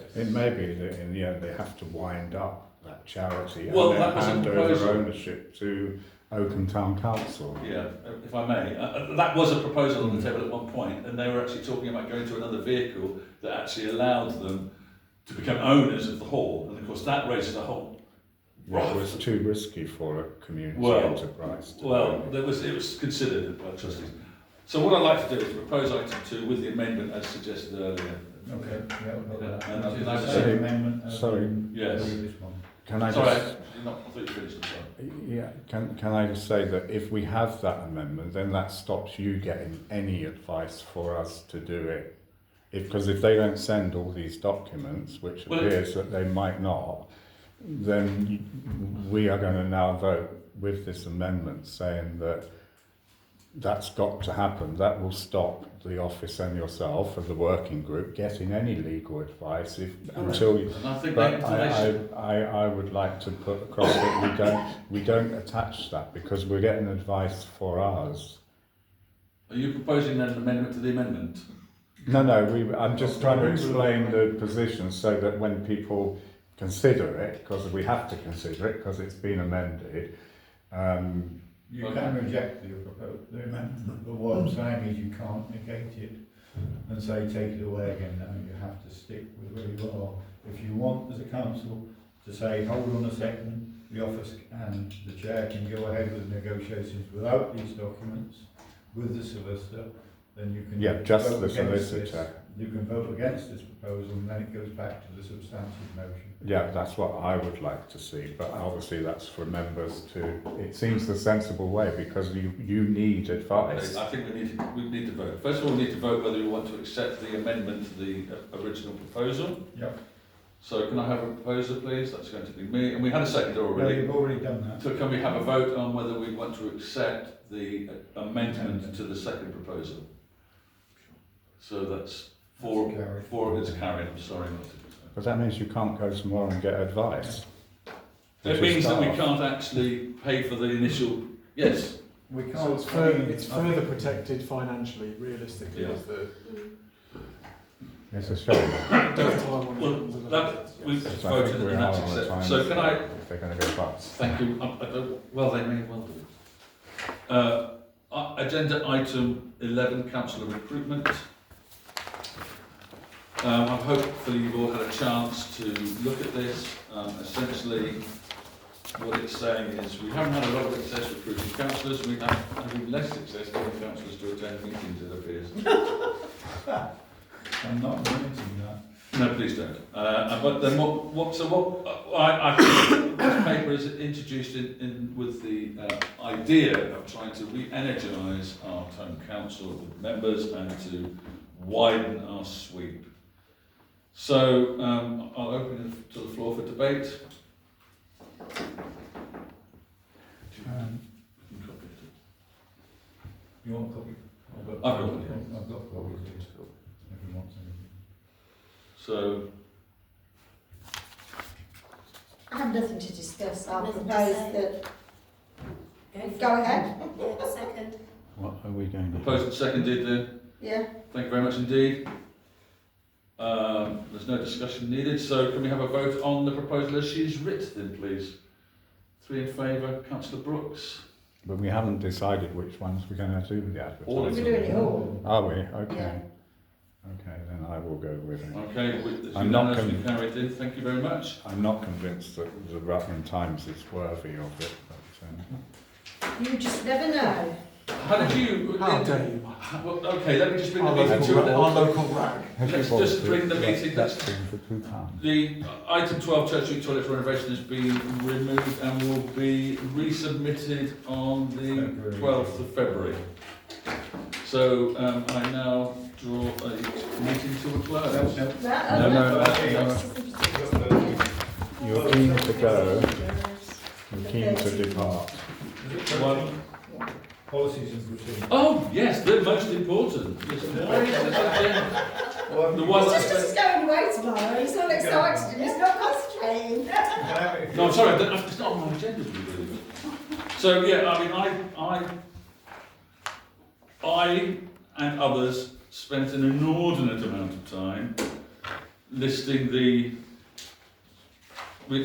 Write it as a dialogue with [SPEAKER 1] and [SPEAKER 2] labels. [SPEAKER 1] It may be that in the end they have to wind up that charity
[SPEAKER 2] Well,
[SPEAKER 1] and then
[SPEAKER 2] that was a
[SPEAKER 1] hand over
[SPEAKER 2] proposal.
[SPEAKER 1] ownership to Oakham Town Council.
[SPEAKER 2] Yeah, if I may, uh, uh, that was a proposal on the table at one point, and they were actually talking about going to another vehicle that actually allowed them to become owners of the hall, and of course that raises a whole.
[SPEAKER 1] It was too risky for a community
[SPEAKER 2] Well,
[SPEAKER 1] enterprise. To
[SPEAKER 2] Well,
[SPEAKER 1] own it.
[SPEAKER 2] there was it was considered by trustees. So what I'd like to do is propose item two with the amendment as suggested earlier.
[SPEAKER 3] Okay, yeah, we'll
[SPEAKER 2] Yeah,
[SPEAKER 3] hold that.
[SPEAKER 2] and I think
[SPEAKER 3] Which is
[SPEAKER 2] that's
[SPEAKER 3] the same
[SPEAKER 1] it.
[SPEAKER 3] amendment as
[SPEAKER 1] Sorry.
[SPEAKER 3] in
[SPEAKER 2] Yes.
[SPEAKER 3] This one.
[SPEAKER 1] can I
[SPEAKER 2] Sorry,
[SPEAKER 1] just
[SPEAKER 2] I- you're not I thought you finished. I'm sorry.
[SPEAKER 1] yeah, can can I just say that if we have that amendment, then that stops you getting any advice for us to do it. If because if they don't send all these documents, which
[SPEAKER 2] Well, it-
[SPEAKER 1] appears that they might not, then you- we are going to now vote with this amendment saying that that's got to happen. That will stop the office and yourself and the working group getting any legal advice if until you,
[SPEAKER 2] And I think they,
[SPEAKER 1] but
[SPEAKER 2] they
[SPEAKER 1] I,
[SPEAKER 2] should,
[SPEAKER 1] I, I, I would like to put across that we don't, we don't attach that because we're getting advice for ours.
[SPEAKER 2] are you proposing then an amendment to the amendment?
[SPEAKER 1] No, no, we, I'm just trying to explain the position so that when people consider it, because we have to consider it because it's been amended, um,
[SPEAKER 3] You
[SPEAKER 2] Okay.
[SPEAKER 3] can reject the proposal, the amendment, but what I'm saying is you can't negate it and say take it away again, no, you have to stick with where you are. If you want, as a council, to say, hold on a second, the office and the chair can go ahead with negotiations without these documents, with the solicitor, then you can.
[SPEAKER 1] yeah, just
[SPEAKER 3] vote
[SPEAKER 1] the
[SPEAKER 3] against
[SPEAKER 1] solicitor.
[SPEAKER 3] this. You can vote against this proposal and then it goes back to the substantive motion.
[SPEAKER 1] Yeah, that's what I would like to see, but obviously that's for members to, it seems the sensible way because you, you need advice.
[SPEAKER 2] I think we need, to- we need to vote. First of all, we need to vote whether we want to accept the amendment to the uh, original proposal.
[SPEAKER 3] Yep.
[SPEAKER 2] So can I have a proposer, please? That's going to be me. And we had a second
[SPEAKER 3] Well,
[SPEAKER 2] already.
[SPEAKER 3] you've already done that.
[SPEAKER 2] So can we have a vote on whether we want to accept the uh, amendment to the second proposal? So that's four,
[SPEAKER 3] Carried.
[SPEAKER 2] four against carried, I'm sorry. not to-
[SPEAKER 1] But that means you can't go tomorrow and get advice. Which
[SPEAKER 2] It
[SPEAKER 1] is
[SPEAKER 2] means that we
[SPEAKER 1] daft.
[SPEAKER 2] can't actually pay for the initial, yes,
[SPEAKER 3] We can't.
[SPEAKER 4] So Oh, it's further, it's
[SPEAKER 3] I think-
[SPEAKER 4] further protected financially, realistically,
[SPEAKER 2] Yeah.
[SPEAKER 4] is the
[SPEAKER 1] It's a shame.
[SPEAKER 4] does time on
[SPEAKER 2] Well, that- we've
[SPEAKER 1] It's like
[SPEAKER 2] voted
[SPEAKER 1] we're
[SPEAKER 2] and
[SPEAKER 1] out
[SPEAKER 2] that's
[SPEAKER 1] on the time.
[SPEAKER 2] accepted. So can I,
[SPEAKER 1] If they're going to go bust.
[SPEAKER 2] Thank you. I, I don't, well, they may well do. Uh, a- agenda item 11, councillor recruitment. Um, I've hopefully you've all had a chance to look at this. Um, essentially, what it's saying is we haven't had a lot of success recruiting councillors. We have having less success getting councillors to attend meetings, it appears.
[SPEAKER 3] I'm not admitting that.
[SPEAKER 2] No, please don't. Uh, but then what, what, so what, I, I think this paper is introduced in, in with the uh, idea of trying to re-energise our town council members and to widen our sweep. So um, I'll open it to the floor for debate.
[SPEAKER 3] Um, You want a copy?
[SPEAKER 2] I've got one, yeah.
[SPEAKER 3] I've got copies. If you want some.
[SPEAKER 2] So,
[SPEAKER 5] I have nothing to discuss. I
[SPEAKER 6] Nothing to
[SPEAKER 5] propose
[SPEAKER 6] say.
[SPEAKER 5] that go ahead.
[SPEAKER 6] Second.
[SPEAKER 1] What are we going
[SPEAKER 2] proposed and seconded then.
[SPEAKER 5] Yeah.
[SPEAKER 2] Thank you very much indeed. Um, there's no discussion needed, so can we have a vote on the proposal as she's written, please? Three in favour, councillor Brooks.
[SPEAKER 1] But we haven't decided which ones we're going to do with the
[SPEAKER 2] All of
[SPEAKER 1] advertising.
[SPEAKER 5] We're doing it all.
[SPEAKER 1] Are we? Okay.
[SPEAKER 5] Yeah.
[SPEAKER 1] Okay, then I will go with it.
[SPEAKER 2] Okay, with- it's
[SPEAKER 1] I'm not
[SPEAKER 2] unanimously carried in, thank you very much.
[SPEAKER 1] I'm not convinced that the Rutland Times is worthy of it. But, um,
[SPEAKER 5] You just never know.
[SPEAKER 2] How did you...
[SPEAKER 4] How dare you?
[SPEAKER 2] How- well, Okay, let me just bring the
[SPEAKER 4] Our
[SPEAKER 2] meeting
[SPEAKER 4] local,
[SPEAKER 2] to an
[SPEAKER 4] ra- our
[SPEAKER 2] end.
[SPEAKER 4] local rag.
[SPEAKER 1] have you
[SPEAKER 2] Let's
[SPEAKER 1] bothered
[SPEAKER 2] just
[SPEAKER 1] to-
[SPEAKER 2] bring the meeting-
[SPEAKER 1] That's been for two pounds.
[SPEAKER 2] The item 12, Church Street Toilet Renovation has been removed and will be resubmitted on the
[SPEAKER 3] February.
[SPEAKER 2] 12th of February. So um, I now draw a meeting to a close.
[SPEAKER 3] No, no.
[SPEAKER 5] That,
[SPEAKER 2] No, no,
[SPEAKER 5] that's-
[SPEAKER 2] no,
[SPEAKER 3] no.
[SPEAKER 1] You're keen to go, you're keen to depart.
[SPEAKER 2] One.
[SPEAKER 3] Policies and procedures.
[SPEAKER 2] Oh, yes, the most important. Yes, the very- the-
[SPEAKER 3] Well,
[SPEAKER 2] the
[SPEAKER 3] you-
[SPEAKER 2] one
[SPEAKER 5] It's
[SPEAKER 2] that's-
[SPEAKER 5] just because he's going away tomorrow. He's not excited. He's not concentrating.
[SPEAKER 3] can I have it if
[SPEAKER 2] No, I'm
[SPEAKER 3] you-
[SPEAKER 2] sorry, that- it's not on my agenda. to be really. So, yeah, I mean, I, I, I and others spent an inordinate amount of time listing the